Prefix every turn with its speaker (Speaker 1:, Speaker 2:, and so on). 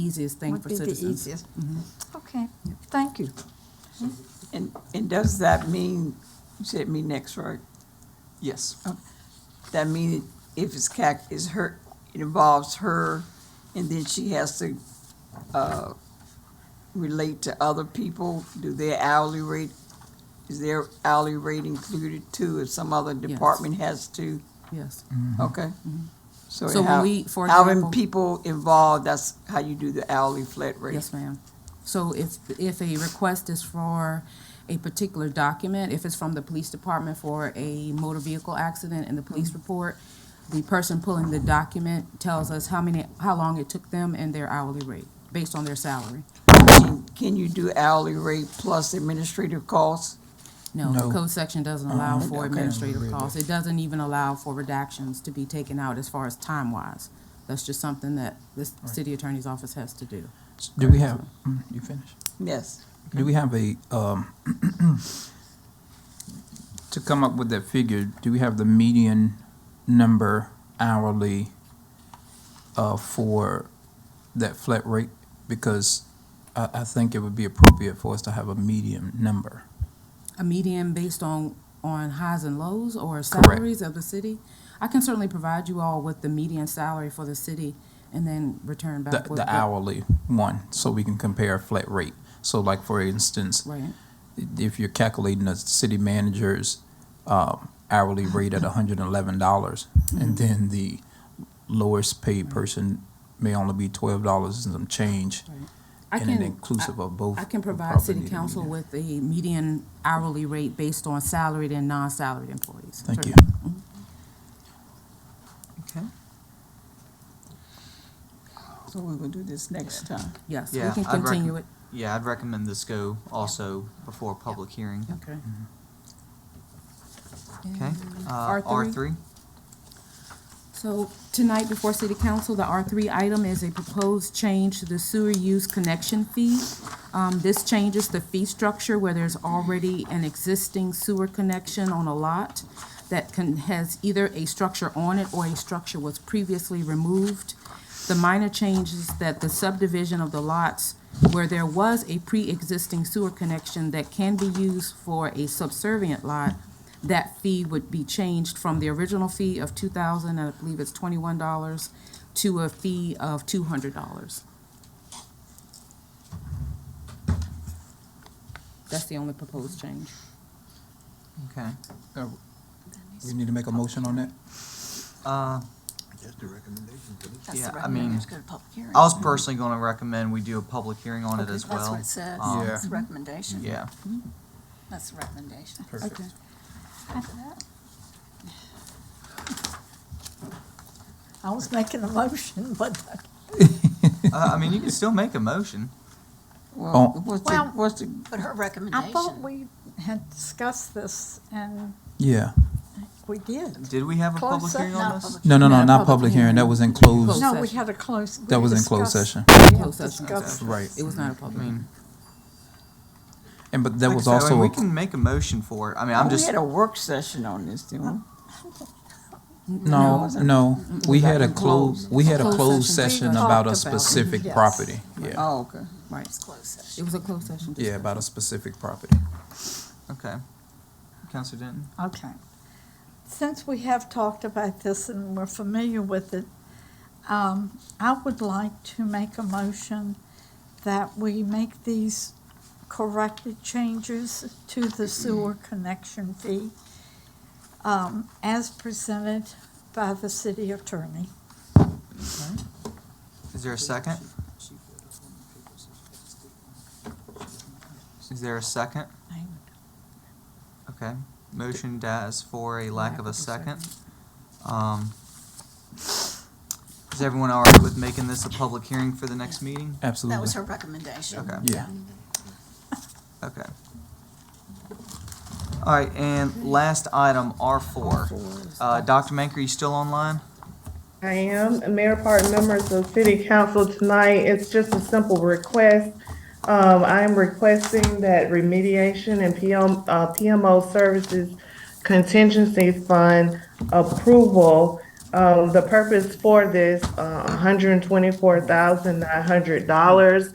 Speaker 1: easiest thing
Speaker 2: Would
Speaker 1: for
Speaker 2: be the
Speaker 1: citizens. Mm-hmm.
Speaker 2: easiest. Okay, thank you.
Speaker 3: And, and does that mean, you said me next, right? Yes. That mean if it's cac, is her, it involves her, and then she has to, uh, relate to other people? Do their hourly rate, is their hourly rate included too, if some other department has to?
Speaker 1: Yes.
Speaker 4: Mm.
Speaker 3: Okay?
Speaker 1: Mm-hmm. So
Speaker 3: So
Speaker 1: when
Speaker 3: how,
Speaker 1: we- for
Speaker 3: having
Speaker 1: example-
Speaker 3: people involved, that's how you do the hourly flat rate?
Speaker 1: Yes, ma'am. So if, if a request is for a particular document, if it's from the police department for a motor vehicle accident in the
Speaker 2: Mm-hmm.
Speaker 1: police report, the person pulling the document tells us how many, how long it took them and their hourly rate, based on their salary.
Speaker 3: Can- Can you do hourly rate plus administrative costs?
Speaker 1: No, the
Speaker 4: No.
Speaker 1: code section doesn't allow
Speaker 4: Uh-uh.
Speaker 1: for
Speaker 4: Okay.
Speaker 1: administrative costs. It doesn't even allow for redactions to be taken out as far as time-wise. That's just something that the s- city attorney's office has to do.
Speaker 4: Do we have, mm, you finished?
Speaker 3: Yes.
Speaker 4: Do we have a, um, to come up with that figure, do we have the median number hourly uh, for that flat rate? Because I, I think it would be appropriate for us to have a median number.
Speaker 1: a median based on, on highs and lows or
Speaker 4: Correct.
Speaker 1: salaries of the city? I can certainly provide you all with the median salary for the city and then return
Speaker 4: The,
Speaker 1: back with.
Speaker 4: the
Speaker 1: what-
Speaker 4: hourly one, so we can compare a flat rate. So like, for instance,
Speaker 1: Right,
Speaker 4: if you're calculating a city manager's um, hourly rate at hundred and eleven dollars,
Speaker 1: Mm-hmm.
Speaker 4: and then the lowest paid person may only be twelve dollars and some change,
Speaker 1: right. I
Speaker 4: and it's
Speaker 1: can,
Speaker 4: inclusive of both.
Speaker 1: I can
Speaker 4: would
Speaker 1: provide
Speaker 4: probably
Speaker 1: city
Speaker 4: need to be
Speaker 1: council
Speaker 4: there.
Speaker 1: with a median hourly rate based on salaried and non-salaried employees. Mm-hmm.
Speaker 4: Thank you.
Speaker 1: Certainly.
Speaker 3: Okay. So we're gonna do this next time.
Speaker 1: Yes, we
Speaker 5: Yeah,
Speaker 1: can
Speaker 5: I'd recom-
Speaker 1: continue it.
Speaker 5: Yeah, I'd recommend this go also before a public hearing.
Speaker 1: Okay.
Speaker 5: Okay?
Speaker 1: R
Speaker 5: Uh,
Speaker 1: three?
Speaker 5: R three?
Speaker 1: So tonight before city council, the R three item is a proposed change to the sewer use connection fee. Um, this changes the fee structure where there's already an existing sewer connection on a lot that can, has either a structure on it or a structure was previously removed. The minor change is that the subdivision of the lots where there was a pre-existing sewer connection that can be used for a subservient lot, that fee would be changed from the original fee of two thousand, and I believe it's twenty-one dollars, to a fee of two hundred dollars. That's the only proposed change.
Speaker 5: Okay.
Speaker 4: Uh, We need to make a motion on that?
Speaker 5: Uh,
Speaker 6: Just a recommendation, but it's
Speaker 2: That's
Speaker 5: Yeah,
Speaker 2: the
Speaker 5: I mean,
Speaker 2: recommendation, go to public hearing.
Speaker 5: I was personally gonna recommend we do a public hearing on it
Speaker 2: Okay,
Speaker 5: as well.
Speaker 2: That's what it
Speaker 5: Um,
Speaker 2: says, it's a recommendation.
Speaker 5: Yeah.
Speaker 2: That's the recommendation.
Speaker 4: Perfect.
Speaker 1: Okay.
Speaker 2: After that. I was making a motion, but
Speaker 5: Uh, I mean, you can still make a motion.
Speaker 4: Oh.
Speaker 3: Well, what's the,
Speaker 2: Well-
Speaker 3: what's the,
Speaker 7: But her
Speaker 2: I thought
Speaker 7: recommendation,
Speaker 2: we had discussed this and
Speaker 4: Yeah.
Speaker 2: we did.
Speaker 5: Did we have a
Speaker 2: Close
Speaker 5: public
Speaker 2: sec-
Speaker 5: hearing on
Speaker 2: no,
Speaker 5: this?
Speaker 2: public-
Speaker 4: No, no, no,
Speaker 1: Not a
Speaker 4: not
Speaker 1: public
Speaker 4: public hearing. That
Speaker 1: hearing.
Speaker 4: was in closed.
Speaker 1: Close.
Speaker 2: No, we
Speaker 1: session.
Speaker 2: had a close. we
Speaker 4: That was in closed
Speaker 2: discussed-
Speaker 4: session.
Speaker 2: we had
Speaker 1: Closed session.
Speaker 2: discussed
Speaker 4: Right. Mm-hmm.
Speaker 1: It was not a
Speaker 5: I
Speaker 1: public hearing.
Speaker 5: mean,
Speaker 4: And but that
Speaker 5: like I
Speaker 4: was
Speaker 5: said, I mean,
Speaker 4: also,
Speaker 5: We
Speaker 4: a-
Speaker 5: can make a motion for it. I mean,
Speaker 2: Oh,
Speaker 5: I'm
Speaker 3: we
Speaker 5: just,
Speaker 3: had a work session on this, didn't we?
Speaker 4: no, no, we
Speaker 3: Like
Speaker 4: had a
Speaker 3: in closed.
Speaker 4: closed, we had a
Speaker 1: Closed
Speaker 4: closed
Speaker 1: session. We
Speaker 4: session
Speaker 1: talked
Speaker 4: about a
Speaker 1: about it.
Speaker 4: specific
Speaker 2: Yes.
Speaker 4: property. Yeah,
Speaker 3: Oh, okay.
Speaker 1: Right,
Speaker 7: it's closed session.
Speaker 1: it was a closed session.
Speaker 4: yeah, about a specific property.
Speaker 5: okay. Counselor Denton?
Speaker 2: Okay. Since we have talked about this and we're familiar with it, um, I would like to make a motion that we make these corrected changes to the sewer connection fee um, as presented by the city attorney.
Speaker 5: Is there a second? Is there a second? Okay. Motion dies for a lack of a second. Um, is everyone all right with making this a public hearing for the next meeting?
Speaker 4: Absolutely.
Speaker 7: That was her recommendation.
Speaker 5: Okay,
Speaker 4: Yeah.
Speaker 5: okay. All right, and last item, R four. Uh, Dr. Manker, you still online?
Speaker 8: I am, Mayor Park, members of City Council tonight, it's just a simple request. Um, I am requesting that remediation and PM, uh, PMO Services Contingency Fund approval, Um, the purpose for this, uh, $124,900